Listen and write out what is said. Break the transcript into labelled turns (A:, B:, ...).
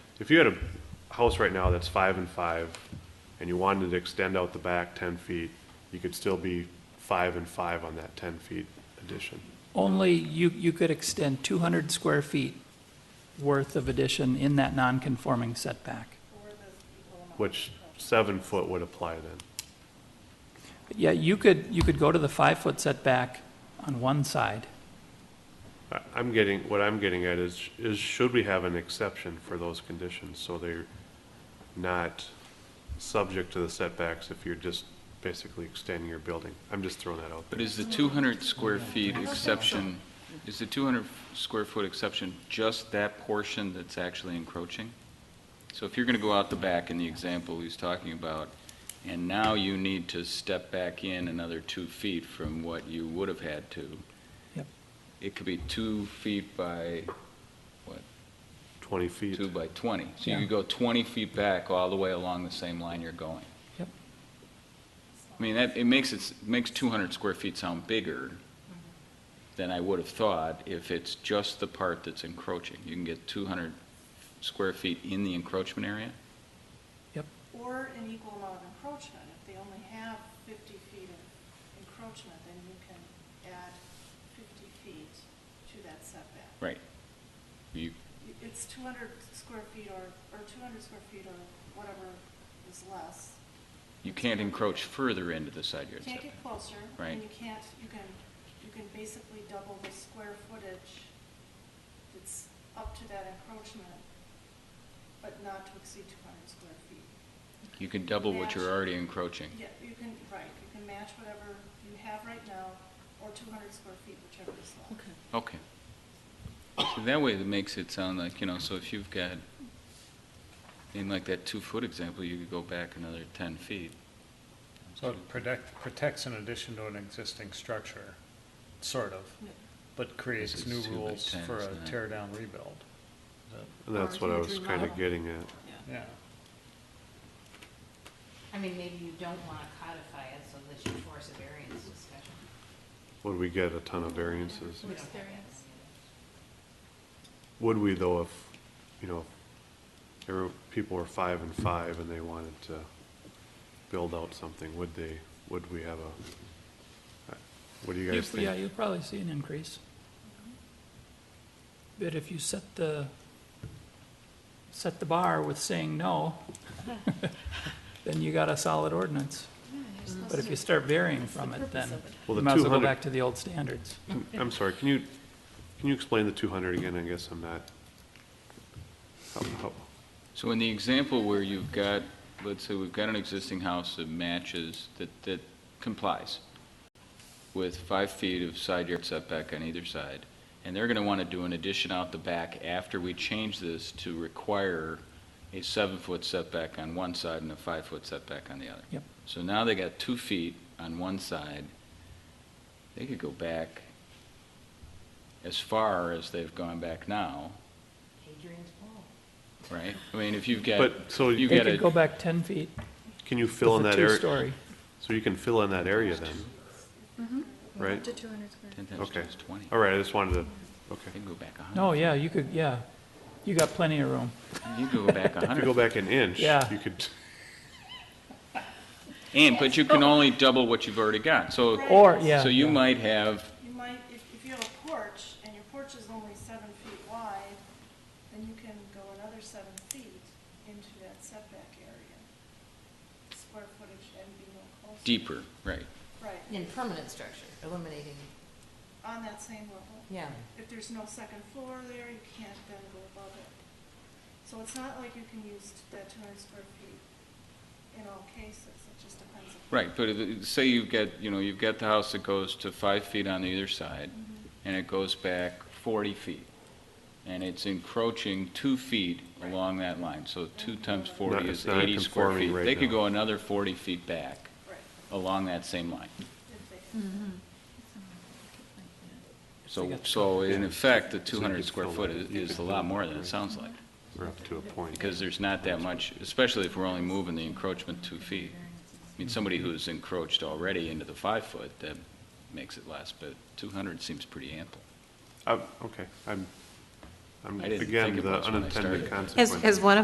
A: if you had a house right now that's five and five, and you wanted to extend out the back ten feet, you could still be five and five on that ten feet addition.
B: Only you, you could extend 200 square feet worth of addition in that non-conforming setback.
A: Which seven foot would apply then.
B: Yeah, you could, you could go to the five-foot setback on one side.
A: I- I'm getting, what I'm getting at is, is should we have an exception for those conditions so they're not subject to the setbacks if you're just basically extending your building? I'm just throwing that out
C: But
A: there.
C: is the 200 square feet exception, is the 200 square foot exception just that portion that's actually encroaching? So if you're going to go out the back in the example he's talking about, and now you need to step back in another two feet from what you would have had to.
B: Yep.
C: It could be two feet by,
A: Twenty feet.
C: two by 20. So you
B: Yeah.
C: could go 20 feet back all the way along the same line you're going.
B: Yep.
C: I mean, that, it makes it, makes 200 square feet sound bigger than I would have thought if it's just the part that's encroaching. You can get 200 square feet in the encroachment area?
D: Or an equal amount of encroachment. If they only have 50 feet of encroachment, then you can add 50 feet to that setback.
C: Right. You,
D: It's 200 square feet or, or 200 square feet or whatever is less.
C: you can't encroach further into the side
D: You
C: yard
D: can't
C: setback.
D: get closer.
C: Right.
D: And you can't, you can, you can basically double the square footage that's up to that encroachment, but not to exceed 200 square feet.
C: You can double what you're already encroaching.
D: Yeah, you can, right, you can match whatever you have right now, or two hundred square feet, whichever is less. Okay.
C: Okay. So that way it makes it sound like, you know, so if you've got, in like that two-foot example, you could go back another 10 feet.
E: So it protect, protects an addition to an existing structure, sort of, but creates
C: is
E: new
C: two by
E: rules
C: 10,
E: for a
C: isn't it?
E: tear down rebuild. Is that-
A: And that's what I was kind of getting at.
E: Yeah,
F: I mean, maybe you don't want to codify it so that you force a variance discussion.
A: Would we get a ton of variances?
F: We don't have that.
A: Would we though if, you know, there were, people were five and five and they wanted to build out something, would they, would we have a, what do you guys
B: Yeah,
A: think?
B: you'll probably see an increase. But if you set the, set the bar with saying no, then you got a solid ordinance. But if you start varying from it, then
A: Well,
B: you
A: the
B: might as well go
A: 200
B: back to the old standards.
A: I'm sorry, can you, can you explain the two hundred again? I guess I'm not. how- how-
C: So in the example where you've got, let's say we've got an existing house that matches, that, that complies with five feet of side yard setback on either side, and they're gonna wanna do an addition out the back after we change this to require a seven-foot setback on one side and a five-foot setback on the other.
B: Yep.
C: So now they got two feet on one side. They could go back as far as they've gone back now,
F: Hadrian's Wall.
C: right? I mean, if you've got.
A: But, so
C: you
B: They
C: got
B: could
C: a.
B: go back 10 feet
A: Can you fill in
B: with a
A: that area?
B: two-story.
A: So you can fill in that area then, right?
C: 10 times
A: Okay.
C: 2 is 20.
A: All right, I just wanted to,
C: You
A: okay.
C: can go back 100.
B: No, yeah, you could, yeah. You got plenty of room.
C: You can go back
A: If you go
C: 100.
A: back an inch,
B: Yeah.
A: you could,
C: And, but you can only double what you've already got. So,
D: Right.
B: Or, yeah.
C: so you
B: yeah.
C: might have,
D: You might, if, if you have a porch, and your porch is only seven feet wide, then you can go another seven feet into that setback area. Square footage and be no closer.
C: deeper, right.
D: Right,
F: In permanent structure, eliminating,
D: on that same level.
F: yeah.
D: If there's no second floor there, you can't then go above it. So it's not like you can use that two hundred square feet in all cases, it just depends. upon-
C: Right, but if- say you've got, you know, you've got the house that goes to five feet on either side, and it goes back 40 feet, and it's encroaching two feet along that line, so two times
A: Not-
C: 40
A: it's
C: is
A: not
C: 80 square
A: conforming
C: feet.
A: right
C: They could
A: now.
C: go another 40 feet back
D: Right,
C: along that same line.
D: if they.
C: So,
B: got-
C: so in effect, the
A: you
C: 200
A: could
C: square
A: fill
C: foot
A: it.
C: is
A: You
C: is
A: could
C: a
A: fill
C: lot
A: it,
C: more than
A: right.
C: it sounds like.
A: we're up to a point.
C: because there's not that much, especially if we're only moving the encroachment two feet. I mean, somebody who's encroached already into the five foot, that makes it less, but two hundred seems pretty ample.
A: Uh, okay, I'm, I'm,
C: I didn't
A: again,
C: think it
A: the
C: was when I
A: unintended
C: started.
A: consequences.
G: As, as one of